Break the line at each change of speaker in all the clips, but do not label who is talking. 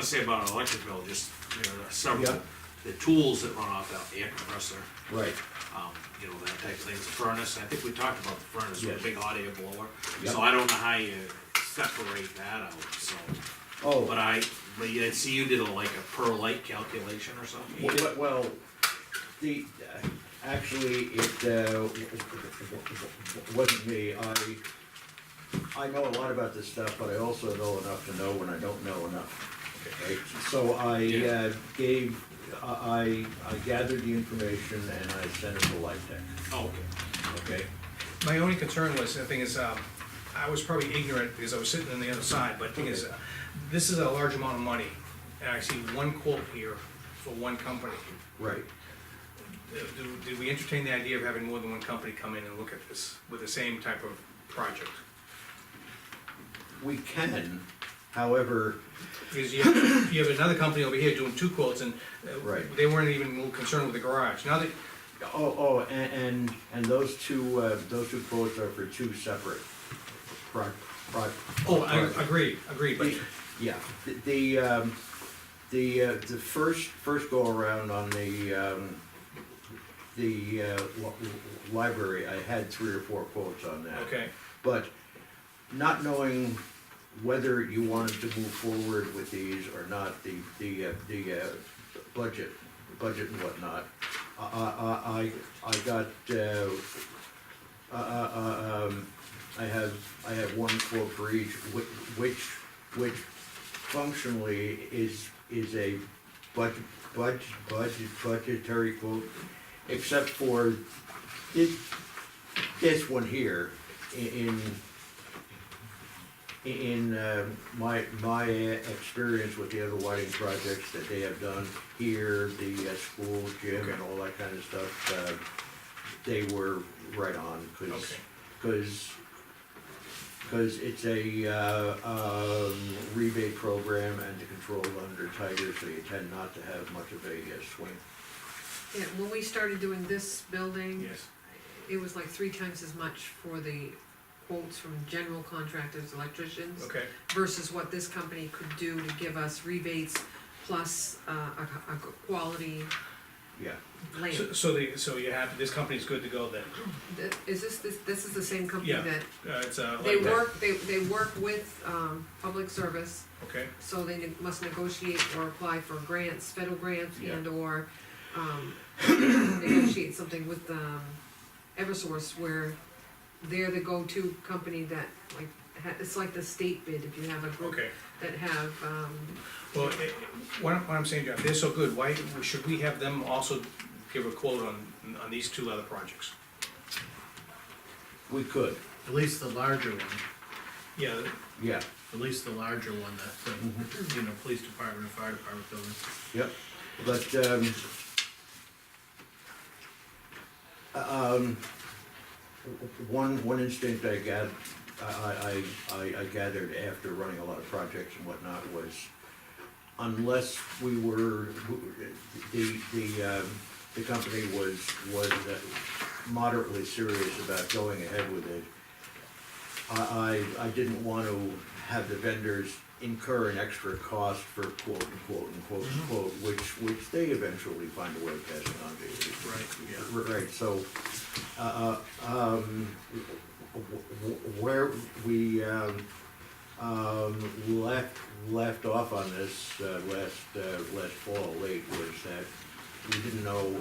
to say about an electric bill, just, you know, there are several,
Yeah.
the tools that run off out, the air compressor,
Right,
um, you know, that type of thing, the furnace, I think we talked about the furnace, with
Yes.
the big hot air blower.
Yeah.
So I don't know how you separate that out, so, but
oh,
I, but yeah, I see you did a, like a per light calculation or something?
w- w- well, the, uh, actually, it, uh, wasn't me, I, I know a lot about this stuff, but I also know enough to know when I don't know enough. right? So I,
Yeah.
uh, gave, I, I I gathered the information and I sent it to Lifetech,
Oh, okay.
okay?
My only concern was, the thing is, um, I was probably ignorant because I was sitting on the other side, but the thing is, uh, this is a large amount of money. And I see one quote here for one company.
Right,
Uh, do- Did we entertain the idea of having more than one company come in and look at this with the same type of project?
we can, however,
Because you have, you have another company over here doing two quotes and uh,
Right.
they weren't even more concerned with the garage. Now that,
Oh, oh, and, and, and those two, uh, those two quotes are for two separate pro, pro.
oh, I
pro-
agree, agree, but
Yeah, the, the, um, the, uh, the first, first go around on the, um, the, uh, li- library, I had three or four quotes on that.
Okay.
But not knowing whether you wanted to move forward with these or not, the, the, uh, the, uh, budget, budget and whatnot, I, I, I, I got, uh, uh, uh, um, I have, I have one quote for each, which, which, which functionally is, is a budget, budget, budget, budgetary quote, except for this, this one here, in, in, in, uh, my, my uh, experience with the other lighting projects that they have done here, the uh, school gym and all that kind of stuff, uh, they were right on, cause,
Okay.
cause, 'cause it's a, uh, um, rebate program and to control under tighter, so you tend not to have much of a uh, swing.
Yeah, when we started doing this building,
yes,
it was like three times as much for the quotes from general contractors, electricians,
okay,
versus what this company could do to give us rebates plus, uh, a, a quality
Yeah,
so,
lamp.
so the, so you have, this company's good to go then?
Th- Is this, this, this is the same company
Yeah.
that,
Uh, it's uh
they
like,
work, they, they work with, um, public service,
okay,
so they ne- must negotiate or apply for grants, federal grants
Yeah.
and or, um, negotiate something with, um, Eversource where they're the go-to company that, like, ha- it's like the state bid, if you have a group
okay.
that have, um,
Well, it- it- what I'm, what I'm saying, Jeff, they're so good, why, should we have them also give a quote on, on these two other projects?
we could,
At least the larger one,
Yeah,
yeah, Mm-hmm.
at least the larger one that, the, you know, police department and fire department building.
Yep, but, um, um, one, one instinct I got, I, I, I I gathered after running a lot of projects and whatnot was unless we were, the, the, um, the company was, was uh, moderately serious about going ahead with it, I, I, I didn't want to have the vendors incur an extra cost for quote unquote unquote unquote, which, which they eventually find a way of passing on to you.
Right,
yeah. Right, so, uh, um, w- w- where we, um, um, left, left off on this, uh, last, uh, last fall late was that we didn't know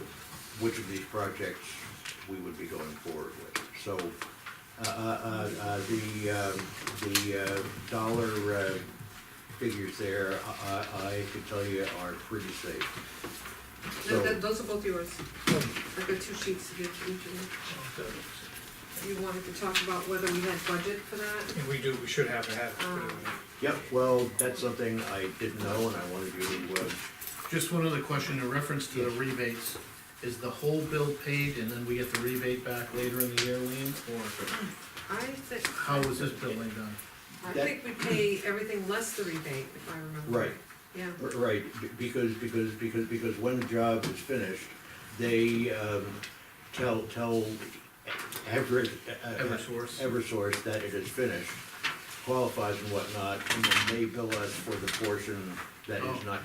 which of these projects we would be going forward with. So, uh, uh, uh, the, um, the, uh, dollar, uh, figures there, I, I I can tell you are pretty safe.
th-
So, Hmm.
th- those are both yours. I've got two sheets to give to each of you. You wanted to talk about whether we had budget for that?
and we do, we should have, have,
Um,
yep, well, that's something I didn't know and I wanted you to, uh,
Just one other question in reference to the rebates, is the whole bill paid and then we get the rebate back later in the year, Lean? Or
I think,
how was this billing done?
I
That-
think we pay everything less the rebate, if I remember.
right.
Yeah.
R- Right, b- because, because, because, because when the job is finished, they, um, tell, tell Everett. uh, uh,
Eversource.
Eversource that it is finished. qualifies and whatnot, and then they bill us for the portion that is
Oh.
not